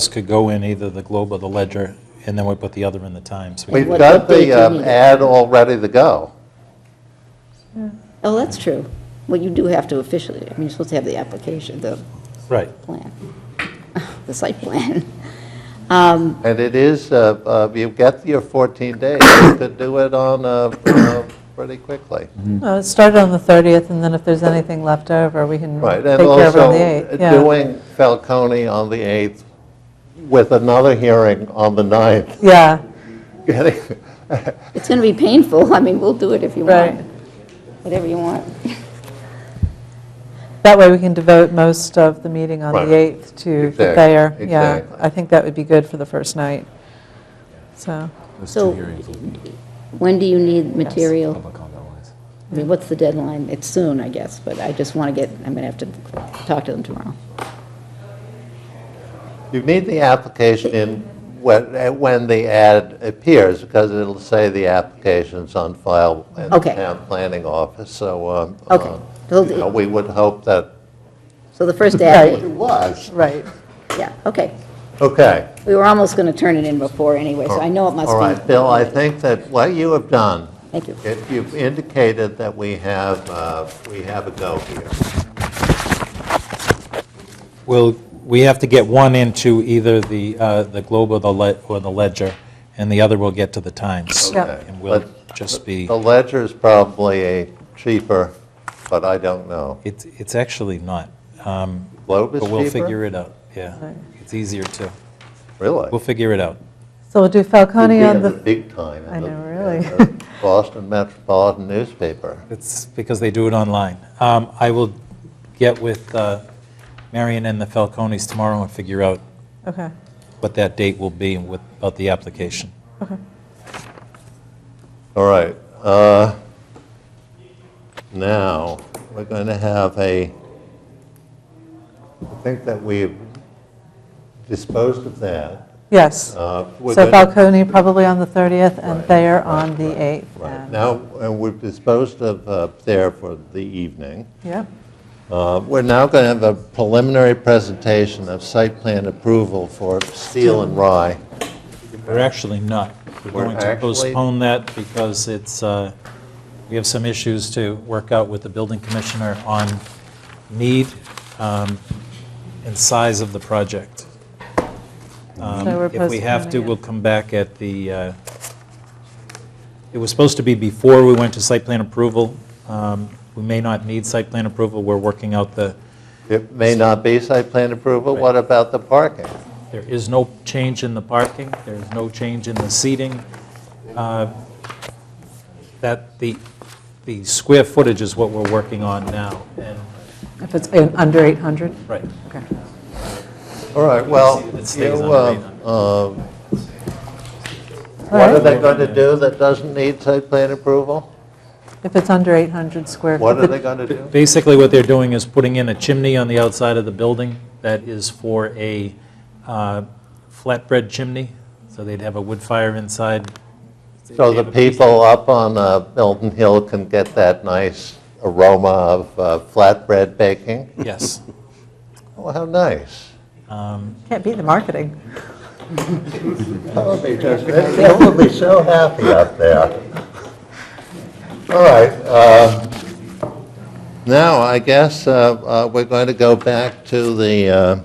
This could go in either the Globe or the Ledger, and then we put the other in the Times. We've What- got what page the you um, need it? ad all ready to go. Oh, that's true. Well, you do have to officially, I mean, you're supposed to have the application, the Right. plan, the site plan. And it is, uh, uh, you've got your 14 days to do it on uh, uh, pretty quickly. No, it started on the 30th, and then if there's anything left over, we can Right, and take care of it also on the uh, 8th. yeah. doing Falcone on the 8th with another hearing on the 9th. Yeah, Getting- It's going to be painful. I mean, we'll do it if you want. Right. Whatever you want. that way we can devote most of the meeting on Right. the 8th to the Exact- fair. Yeah, exactly. I think that would be good for the first night, so. So when do you need material? I mean, what's the deadline? It's soon, I guess, but I just want to get, I'm going to have to talk to them tomorrow. You need the application in when uh, when the ad appears, because it'll say the application's on file in the Okay. town planning office, so. um, Okay. uh, They'll you do- know, We would hope that So the first it ad, was. Right. yeah, okay. Okay. We were almost going to turn it in before anyway, so I know it must be. Oh, All right, Bill, I think that what you have done, Thank you. if you've indicated that we have, uh, we have a go here. Well, we have to get one into either the, uh, the Globe or the Le- or the Ledger, and the other will get to the Times. Yeah. Okay. And we'll But just be, The ledger's probably a cheaper, but I don't know. it's, it's actually not, um, Globe is but cheaper? we'll figure it out, yeah. It's easier to, Really? we'll figure it out. So we'll do Falcone You're on being the, Big time. in I the- know, really. in the Boston Metropolitan newspaper. It's because they do it online. Um, I will get with uh, Marion and the Falcones tomorrow and figure out okay. what that date will be and what, about the application. All right. uh, Now, we're going to have a, I think that we've disposed of that. Yes. Uh, we're So going to- Falcone probably on the 30th, and Right, Thayer right, on the right, 8th. Right. and- Now, and we've disposed of uh, there for the evening. Yep, Uh, We're now going to have a preliminary presentation of site plan approval for Steel and Rye. We're actually not. We're We're going to actually- postpone that because it's, uh, we have some issues to work out with the building commissioner on need um, and size of the project. Um, So we're If we have postponing to, it. we'll come back at the, uh, it was supposed to be before we went to site plan approval. Um, We may not need site plan approval. We're working out the, It may not be site plan approval, what about the parking? There is no change in the parking, there is no change in the seating. Uh, That, the, the square footage is what we're working on now, and, if it's in- under 800. right. Okay. All right, well, It you, stays under um, um, what are they going to do that doesn't need site plan approval? If it's under 800 square. What feet. are they going to do? Basically, what they're doing is putting in a chimney on the outside of the building that is for a uh, flatbread chimney, so they'd have a wood fire inside. So the people up on uh, Milton Hill can get that nice aroma of uh, flatbread baking? Yes. Oh, how nice. Can't beat the marketing. Oh, They will be so happy up there. All right, uh, now, I guess uh, uh, we're going to go back to the, uh,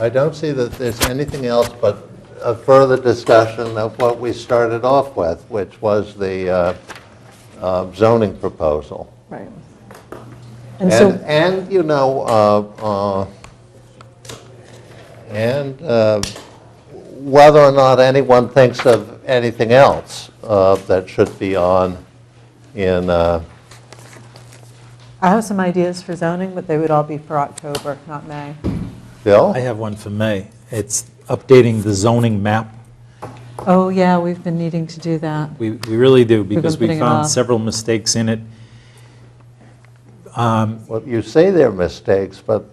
I don't see that there's anything else but a further discussion of what we started off with, which was the uh, uh, zoning proposal. Right. And And, so, and, you know, uh, uh, and uh, whether or not anyone thinks of anything else uh, that should be on in, uh, I have some ideas for zoning, but they would all be for October, not May. Bill? I have one for May. It's updating the zoning map. Oh, yeah, we've been needing to do that. We we really do, because we putting it found off. several mistakes in it. Well, you say they're mistakes, but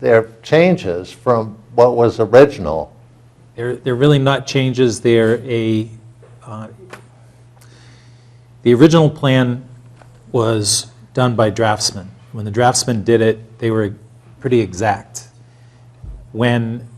they're changes from what was original. They're, they're really not changes, they're a, uh, the original plan was done by draftsmen. When the draftsmen did it, they were pretty exact. When